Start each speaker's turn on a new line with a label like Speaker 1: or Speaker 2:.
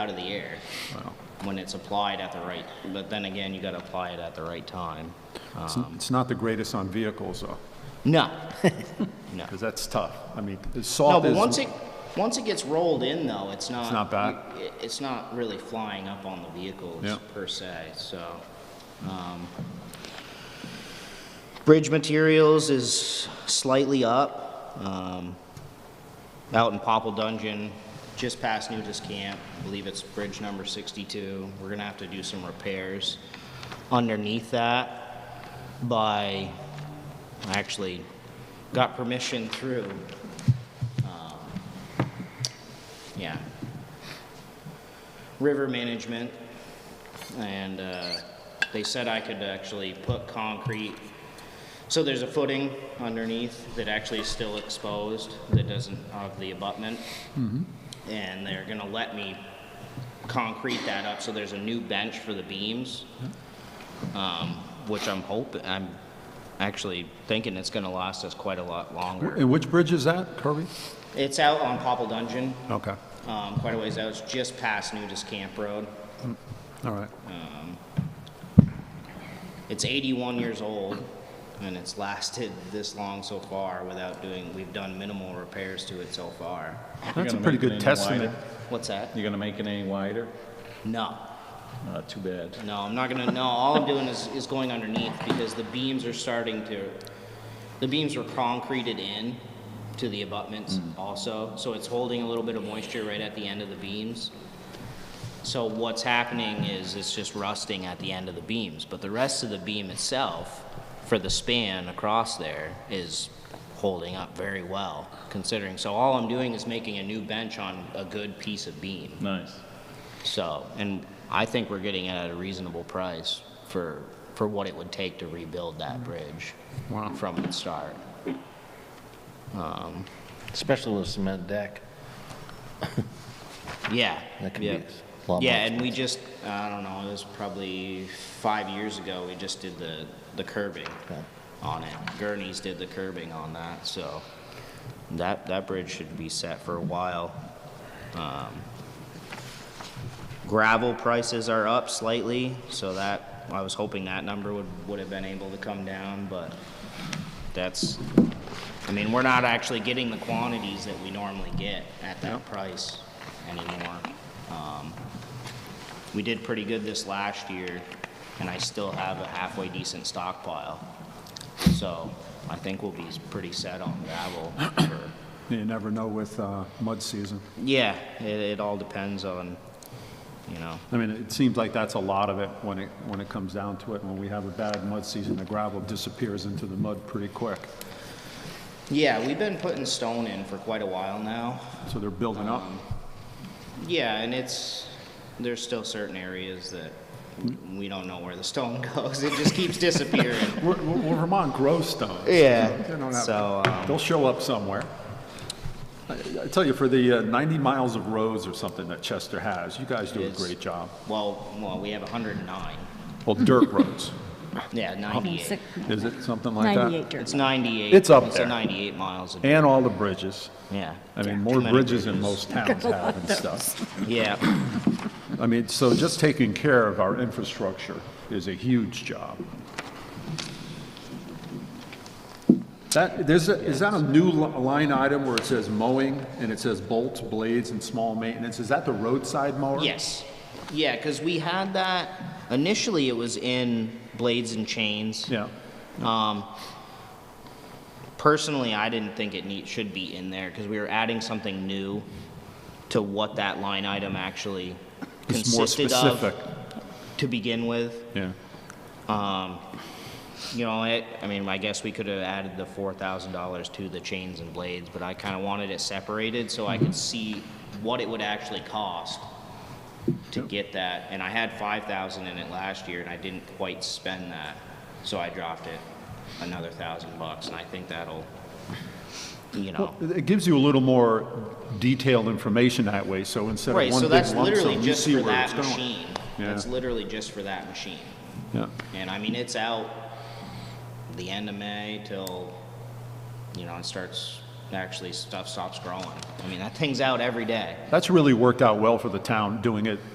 Speaker 1: out of the air when it's applied at the right, but then again, you gotta apply it at the right time.
Speaker 2: It's- Um, It's not the greatest on vehicles, though,
Speaker 1: No, no.
Speaker 2: because that's tough. I mean, the
Speaker 1: No,
Speaker 2: salt
Speaker 1: but
Speaker 2: is...
Speaker 1: once it, once it gets rolled in though, it's not.
Speaker 2: not bad.
Speaker 1: you- it- It's not really flying up on the vehicles
Speaker 2: Yeah.
Speaker 1: per se, so. um, Bridge materials is slightly up. um, Out in Popple Dungeon, just past Nudist Camp, I believe it's bridge number 62. We're gonna have to do some repairs underneath that by, I actually got permission through um, yeah. River management, and uh, they said I could actually put concrete. So there's a footing underneath that actually is still exposed, that doesn't have the abutment. And they're gonna let me concrete that up, so there's a new bench for the beams. um, Which I'm hoping, I'm actually thinking it's gonna last us quite a lot longer.
Speaker 2: And which bridge is that, Kirby?
Speaker 1: It's out on Popple Dungeon,
Speaker 2: Okay,
Speaker 1: um, quite a ways out. It's just past Nudist Camp Road.
Speaker 2: all right.
Speaker 1: It's 81 years old, and it's lasted this long so far without doing, we've done minimal repairs to it so far.
Speaker 2: That's a
Speaker 3: gonna
Speaker 2: pretty
Speaker 3: make it
Speaker 2: good
Speaker 3: any wider?
Speaker 2: testament.
Speaker 1: What's that?
Speaker 3: You gonna make it any wider?
Speaker 1: No,
Speaker 3: Uh, too bad.
Speaker 1: no, I'm not gonna, no, all I'm doing is, is going underneath because the beams are starting to, the beams were concreted in to the abutments also, so it's holding a little bit of moisture right at the end of the beams. So what's happening is it's just rusting at the end of the beams, but the rest of the beam itself, for the span across there, is holding up very well, considering. So all I'm doing is making a new bench on a good piece of beam.
Speaker 3: Nice.
Speaker 1: So, and I think we're getting it at a reasonable price for, for what it would take to rebuild that bridge
Speaker 2: Wow.
Speaker 1: from the start.
Speaker 4: Especially with cement deck.
Speaker 1: Yeah.
Speaker 4: That can be
Speaker 1: yeah.
Speaker 4: a lot more
Speaker 1: Yeah, and we just, uh, I don't know, it was probably five years ago, we just did the, the curbing
Speaker 4: Yeah.
Speaker 1: on it. Gurney's did the curbing on that, so that, that bridge should be set for a while. Um, Gravel prices are up slightly, so that, I was hoping that number would, would have been able to come down, but that's, I mean, we're not actually getting the quantities that we normally get at that price anymore. Um, We did pretty good this last year, and I still have a halfway decent stockpile. So I think we'll be pretty set on gravel for
Speaker 2: You never know with uh, mud season.
Speaker 1: yeah, it, it all depends on, you know,
Speaker 2: I mean, it seems like that's a lot of it when it, when it comes down to it. When we have a bad mud season, the gravel disappears into the mud pretty quick.
Speaker 1: yeah, we've been putting stone in for quite a while now.
Speaker 2: So they're building up.
Speaker 1: Yeah, and it's, there's still certain areas that we don't know where the stone goes. It just keeps disappearing.
Speaker 2: We're, we're we're Vermont grows stone. They don't have-
Speaker 1: So, um,
Speaker 2: They'll show up somewhere. I I tell you, for the uh, 90 miles of roads or something that Chester has, you guys do a
Speaker 1: Yes.
Speaker 2: great job.
Speaker 1: well, well, we have 109.
Speaker 2: Well, dirt roads,
Speaker 1: Yeah, 98.
Speaker 5: Six-
Speaker 2: is it, something like that?
Speaker 5: 98
Speaker 1: It's
Speaker 5: Durban.
Speaker 1: 98.
Speaker 2: It's up
Speaker 1: It's a
Speaker 2: there.
Speaker 1: 98 miles. a-
Speaker 2: And all the bridges.
Speaker 1: Yeah.
Speaker 2: I mean,
Speaker 1: Too
Speaker 2: more
Speaker 1: many
Speaker 2: bridges than most towns have and stuff.
Speaker 1: Yeah,
Speaker 2: I mean, so just taking care of our infrastructure is a huge job. That, there's, a- is that a new li- line item where it says mowing and it says bolts, blades, and small maintenance? Is that the roadside mower?
Speaker 1: yes. Yeah, because we had that, initially it was in Blades and Chains.
Speaker 2: Yeah,
Speaker 1: Um, personally, I didn't think it need, should be in there, because we were adding something new to what that line item actually
Speaker 2: it's more
Speaker 1: consisted of
Speaker 2: specific.
Speaker 1: to begin with.
Speaker 2: Yeah.
Speaker 1: Um, you know, it, I mean, I guess we could have added the four thousand dollars to the chains and blades, but I kind of wanted it separated so I
Speaker 2: Mm-hmm.
Speaker 1: could see what it would actually cost to get that. And I had five thousand in it last year, and I didn't quite spend that, so I dropped it another thousand bucks, and I think that'll, you know.
Speaker 2: It gives you a little more detailed information that way, so instead of
Speaker 1: Right,
Speaker 2: one
Speaker 1: so
Speaker 2: big
Speaker 1: that's
Speaker 2: lump
Speaker 1: literally
Speaker 2: sum, you
Speaker 1: just
Speaker 2: see
Speaker 1: for
Speaker 2: where it's
Speaker 1: that
Speaker 2: going.
Speaker 1: machine.
Speaker 2: Yeah.
Speaker 1: That's literally just for that machine.
Speaker 2: Yeah.
Speaker 1: And I mean, it's out the end of May till, you know, it starts actually stuff stops growing. I mean, that thing's out every day.
Speaker 2: That's really worked out well for the town, doing it